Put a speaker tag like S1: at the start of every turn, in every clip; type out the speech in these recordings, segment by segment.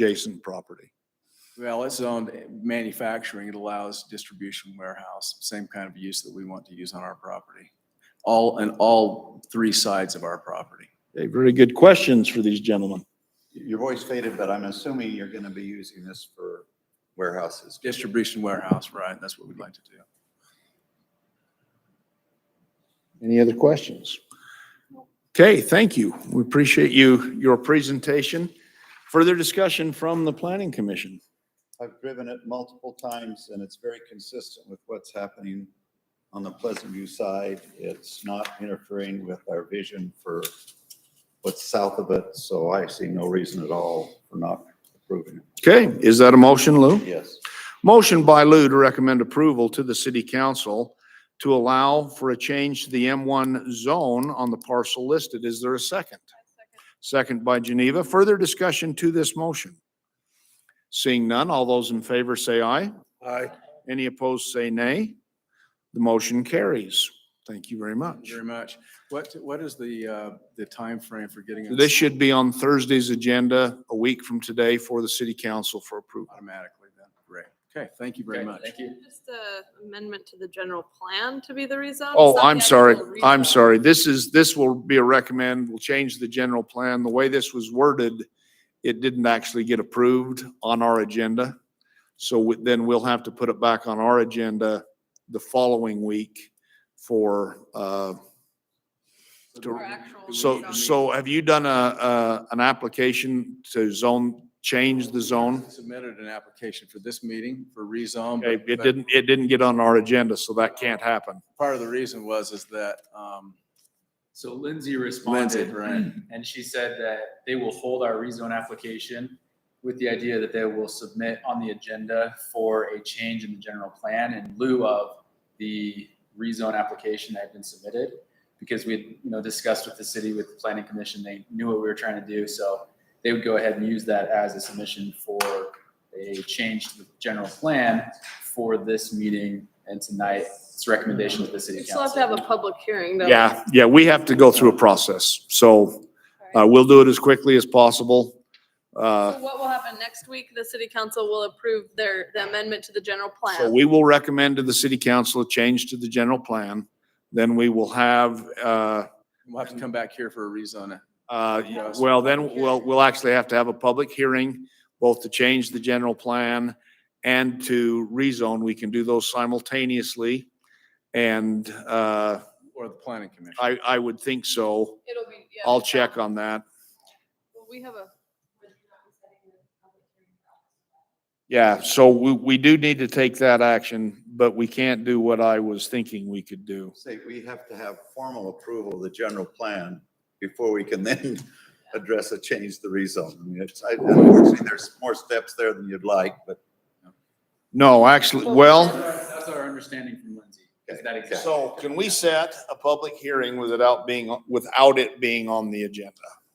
S1: adjacent property.
S2: Well, it's owned manufacturing. It allows distribution warehouse, same kind of use that we want to use on our property. All, and all three sides of our property.
S1: Okay, very good questions for these gentlemen.
S3: Your voice faded, but I'm assuming you're going to be using this for warehouses.
S2: Distribution warehouse, right? That's what we'd like to do.
S1: Any other questions? Okay, thank you. We appreciate you, your presentation. Further discussion from the planning commission.
S3: I've driven it multiple times and it's very consistent with what's happening on the Pleasant View side. It's not interfering with our vision for what's south of it, so I see no reason at all for not approving it.
S1: Okay, is that a motion, Lou?
S3: Yes.
S1: Motion by Lou to recommend approval to the city council to allow for a change to the M1 zone on the parcel listed. Is there a second? Second by Geneva. Further discussion to this motion? Seeing none, all those in favor say aye.
S4: Aye.
S1: Any opposed say nay. The motion carries. Thank you very
S2: Thank
S1: much.
S2: you Very much. What, what is the, uh, the timeframe for getting? us
S1: This should be on Thursday's agenda, a week from today, for the city council for approval.
S2: Automatically then. Great. Okay, thank you very much.
S4: Thank you.
S5: Just a amendment to the general plan to be the rezone?
S1: Oh, I'm sorry. I'm sorry. This is, this will be a recommend, we'll change the general plan. The way this was worded, it didn't actually get approved on our agenda. So we- then we'll have to put it back on our agenda the following week for, uh, to- so, so have you done a, a, an application to zone, change the zone?
S2: Submitted an application for this meeting for rezone.
S1: Okay,
S2: but-
S1: it
S2: but
S1: didn't, it didn't get on our agenda, so that can't happen.
S2: Part of the reason was is that, um,
S4: So Lindsay
S2: Lindsay,
S4: responded,
S2: right?
S4: and she said that they will hold our rezone application with the idea that they will submit on the agenda for a change in the general plan in lieu of the rezone application that had been submitted. Because we, had you know, discussed with the city, with the planning commission, they knew what we were trying to do, so they would go ahead and use that as a submission for a change to the general plan for this meeting and tonight, its recommendation to the city
S5: You
S4: council.
S5: still have to have a public hearing, though.
S1: Yeah, yeah, we have to go through a process. So
S5: All
S1: Uh,
S5: right.
S1: we'll do it as quickly as possible. Uh,
S5: So what will happen next week? The city council will approve their, the amendment to the general plan.
S1: so we will recommend to the city council a change to the general plan. Then we will have, uh,
S2: We'll have to come back here for a rezone.
S1: uh,
S2: Yes.
S1: well, then we'll, we'll actually have to have a public hearing, both to change the general plan and to rezone. We can do those simultaneously. And, uh,
S2: Or the planning commission.
S1: I, I would think so.
S5: It'll be, yeah.
S1: I'll check on that.
S5: Well, We have a.
S1: Yeah, so we, we do need to take that action, but we can't do what I was thinking we could do.
S3: Say, we have to have formal approval of the general plan before we can then address a change to the rezone. I mean, it's, I- unfortunately, there's more steps there than you'd like, but
S1: No, actually, well.
S4: That's our understanding from Lindsay, is that exactly.
S1: So can we set a public hearing without being, without it being on the agenda?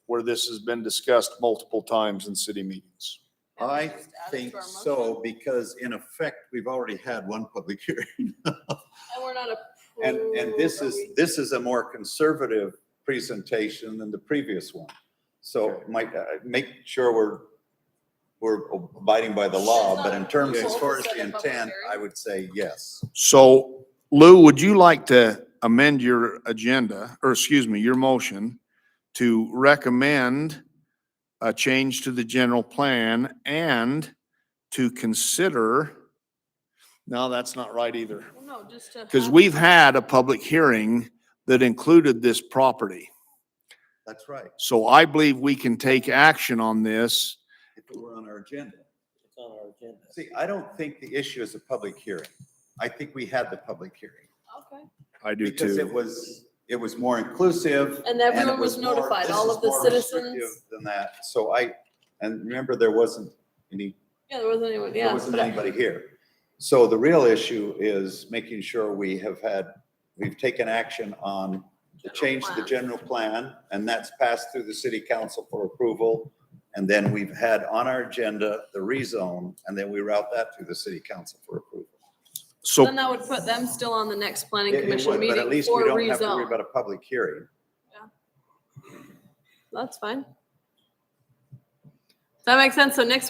S1: Where this has been discussed multiple times in city meetings?
S3: I think so, because in effect, we've already had one public hearing.
S5: And we're not a.
S3: And, and this is, this is a more conservative presentation than the previous one. So might, uh, make sure we're, we're abiding by the law, but in terms as far as the intent, I would say yes.
S1: So Lou, would you like to amend your agenda, or excuse me, your motion to recommend a change to the general plan and to consider? No, that's not right either.
S5: No, just to.
S1: Because
S5: have-
S1: we've had a public hearing that included this property.
S3: That's right.
S1: So I believe we can take action on this.
S3: If it were on our agenda.
S6: It's on our agenda.
S3: See, I don't think the issue is a public hearing. I think we had the public hearing.
S5: Okay.
S1: I do
S3: Because it
S1: too.
S3: was, it was more inclusive.
S5: And
S3: and it
S5: everyone was
S3: more-
S5: notified,
S3: this
S5: all
S3: is
S5: of the
S3: more
S5: citizens.
S3: restrictive Than that. So I, and remember, there wasn't any,
S5: Yeah, there wasn't anyone,
S3: there
S5: yeah.
S3: wasn't
S5: but I-
S3: anybody here. So the real issue is making sure we have had, we've taken action on the
S5: General
S3: change to the
S5: plan.
S3: general plan, and that's passed through the city council for approval. And then we've had on our agenda the rezone, and then we route that through the city council for approval.
S5: Then
S1: So,
S5: that would put them still on the next planning
S3: It- it
S5: commission
S3: would, But at
S5: meeting
S3: least
S5: for
S3: we don't have to worry About
S5: rezone.
S3: a public hearing.
S5: That's fine. That makes sense. So next week.